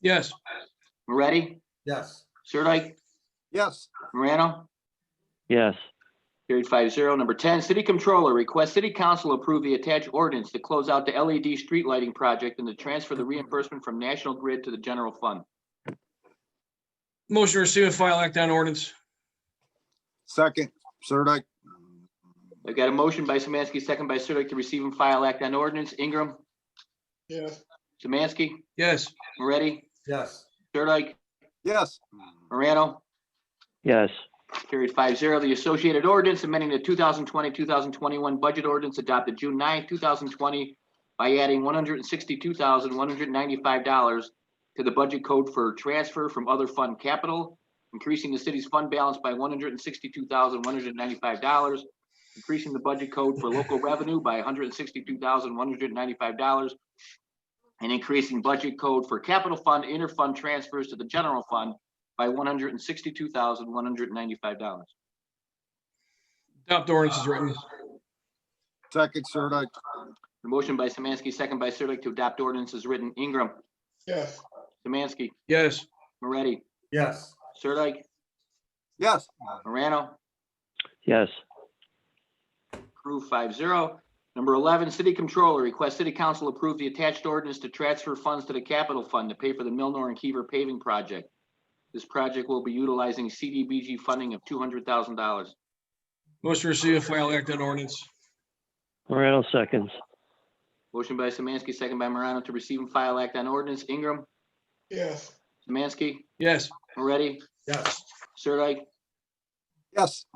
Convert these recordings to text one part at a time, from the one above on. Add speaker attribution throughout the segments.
Speaker 1: Yes,
Speaker 2: Moretti,
Speaker 3: Yes.
Speaker 2: Sirdike,
Speaker 3: Yes.
Speaker 2: Morano,
Speaker 4: yes,
Speaker 2: carried five zero. Number ten, City Controller requests City Council approve the attached ordinance to close out the LED street lighting project and to transfer the reimbursement from National Grid to the general fund.
Speaker 1: motion to receive and file act on ordinance.
Speaker 3: Second, Sirdike.
Speaker 2: I've got a motion by Samansky, second by Sirdike to receive and file act on ordinance. Ingram,
Speaker 1: Yes.
Speaker 2: Samansky,
Speaker 1: Yes,
Speaker 2: Moretti,
Speaker 3: Yes.
Speaker 2: Sirdike,
Speaker 3: Yes.
Speaker 2: Morano,
Speaker 4: yes,
Speaker 2: Carried five zero. The associated ordinance amending the 2020-2021 budget ordinance adopted June 9, thousand twenty by adding one hundred and sixty-two thousand, one hundred and ninety-five dollars to the budget code for transfer from other fund capital, increasing the city's fund balance by one hundred and sixty-two thousand, one hundred and ninety-five dollars, increasing the budget code for local revenue by one hundred and sixty-two thousand, one hundred and ninety-five dollars, and increasing budget code for capital fund, interfund transfers to the general fund by one hundred and sixty-two thousand, one hundred and ninety-five dollars.
Speaker 1: adopt ordinance is written.
Speaker 3: Second, Sirdike.
Speaker 2: The motion by Samansky, second by Sirdike to adopt ordinance is written. Ingram.
Speaker 1: Yes.
Speaker 2: Samansky,
Speaker 1: Yes,
Speaker 2: Moretti,
Speaker 3: Yes.
Speaker 2: Sirdike,
Speaker 3: Yes.
Speaker 2: Morano,
Speaker 4: yes,
Speaker 2: approved five zero. Number eleven, City Controller requests City Council approve the attached ordinance to transfer funds to the capital fund to pay for the Milnor and Kiever paving project. This project will be utilizing CDBG funding of two hundred thousand dollars.
Speaker 1: motion to receive and file act on ordinance.
Speaker 4: Morano seconds,
Speaker 2: Motion by Samansky, second by Morano to receive and file act on ordinance. Ingram,
Speaker 1: Yes.
Speaker 2: Samansky,
Speaker 1: Yes,
Speaker 2: Moretti,
Speaker 3: Yes.
Speaker 2: Sirdike,
Speaker 3: Yes.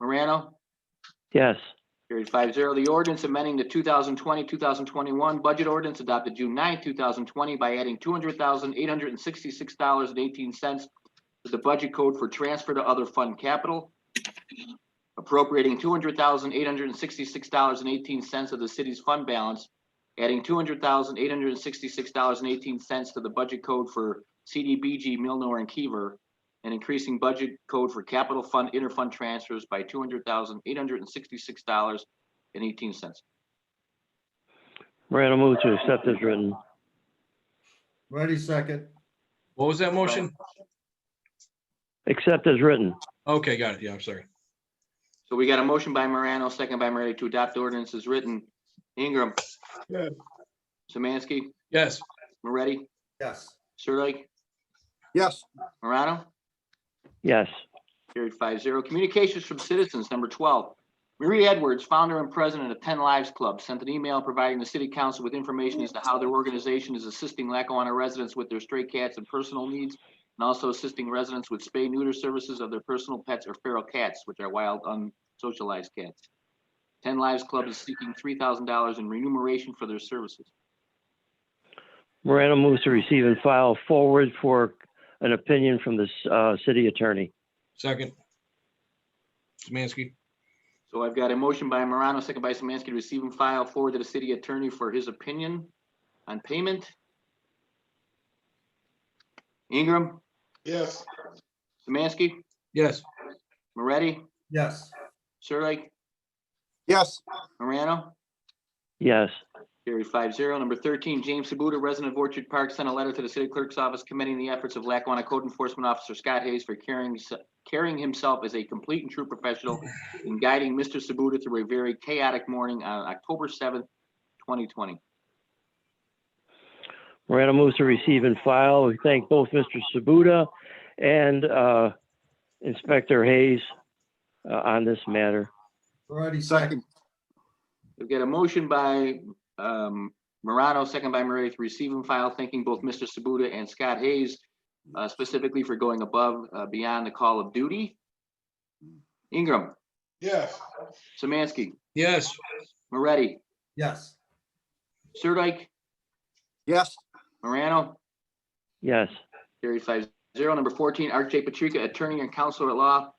Speaker 2: Morano,
Speaker 4: yes,
Speaker 2: Carried five zero. The ordinance amending the 2020-2021 budget ordinance adopted June 9, thousand twenty by adding two hundred thousand eight hundred and sixty-six dollars and eighteen cents to the budget code for transfer to other fund capital, appropriating two hundred thousand eight hundred and sixty-six dollars and eighteen cents of the city's fund balance, adding two hundred thousand eight hundred and sixty-six dollars and eighteen cents to the budget code for CDBG, Milnor and Kiever, and increasing budget code for capital fund interfund transfers by two hundred thousand eight hundred and sixty-six dollars and eighteen cents.
Speaker 4: Morano move to accept as written,
Speaker 3: Ready, second.
Speaker 1: what was that motion?
Speaker 4: accept as written,
Speaker 1: Okay, got it. Yeah, I'm sorry.
Speaker 2: So we got a motion by Morano, second by Moretti to adopt ordinance as written. Ingram.
Speaker 1: Yes.
Speaker 2: Samansky,
Speaker 1: Yes,
Speaker 2: Moretti,
Speaker 3: Yes.
Speaker 2: Sirdike,
Speaker 3: Yes.
Speaker 2: Morano.
Speaker 4: yes,
Speaker 2: Carried five zero. Communications from citizens, number twelve. Marie Edwards, founder and president of Ten Lives Club, sent an email providing the city council with information as to how their organization is assisting Lackawanna residents with their stray cats and personal needs, and also assisting residents with spay neuter services of their personal pets or feral cats, which are wild, unsocialized cats. Ten Lives Club is seeking three thousand dollars in remuneration for their services.
Speaker 4: Morano moves to receive and file forward for an opinion from the, uh, city attorney,
Speaker 1: second. Semansky,
Speaker 2: So I've got a motion by Morano, second by Samansky, to receive and file forward to the city attorney for his opinion on payment. Ingram. Yes. Samansky,
Speaker 1: yes,
Speaker 2: Moretti,
Speaker 3: Yes.
Speaker 2: Sirdike,
Speaker 3: Yes.
Speaker 2: Morano.
Speaker 4: yes,
Speaker 2: Carried five zero. Number thirteen, James Sabuda, resident of Orchard Park, sent a letter to the city clerk's office commending the efforts of Lackawanna Code Enforcement Officer Scott Hayes for carrying, s- carrying himself as a complete and true professional in guiding Mr. Sabuda through a very chaotic morning on October seventh, twenty twenty.
Speaker 4: Morano moves to receive and file, we thank both Mr. Sabuda and, uh, Inspector Hayes, uh, on this matter,
Speaker 3: Ready, second.
Speaker 2: We've got a motion by um, Morano, second by Moretti to receive and file, thanking both Mr. Sabuda and Scott Hayes uh, specifically for going above, uh, beyond the call of duty. Ingram. Yes. Samansky,
Speaker 1: yes,
Speaker 2: Moretti,
Speaker 3: Yes.
Speaker 2: Sirdike,
Speaker 3: Yes.
Speaker 2: Morano,
Speaker 4: yes,
Speaker 2: carried five zero. Number fourteen, Art J. Patrica, attorney and counselor at law,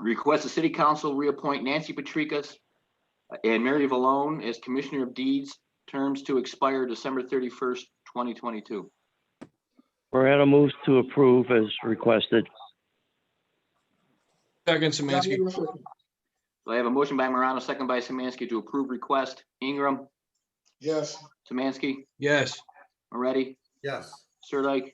Speaker 2: requests the city council reappoint Nancy Patricas and Mary Valone as commissioner of deeds, terms to expire December thirty-first, twenty twenty-two.
Speaker 4: Morano moves to approve as requested,
Speaker 1: second Semansky,
Speaker 2: So I have a motion by Morano, second by Samansky to approve request. Ingram. Yes. Samansky,
Speaker 1: yes,
Speaker 2: Moretti,
Speaker 3: Yes.
Speaker 2: Sirdike,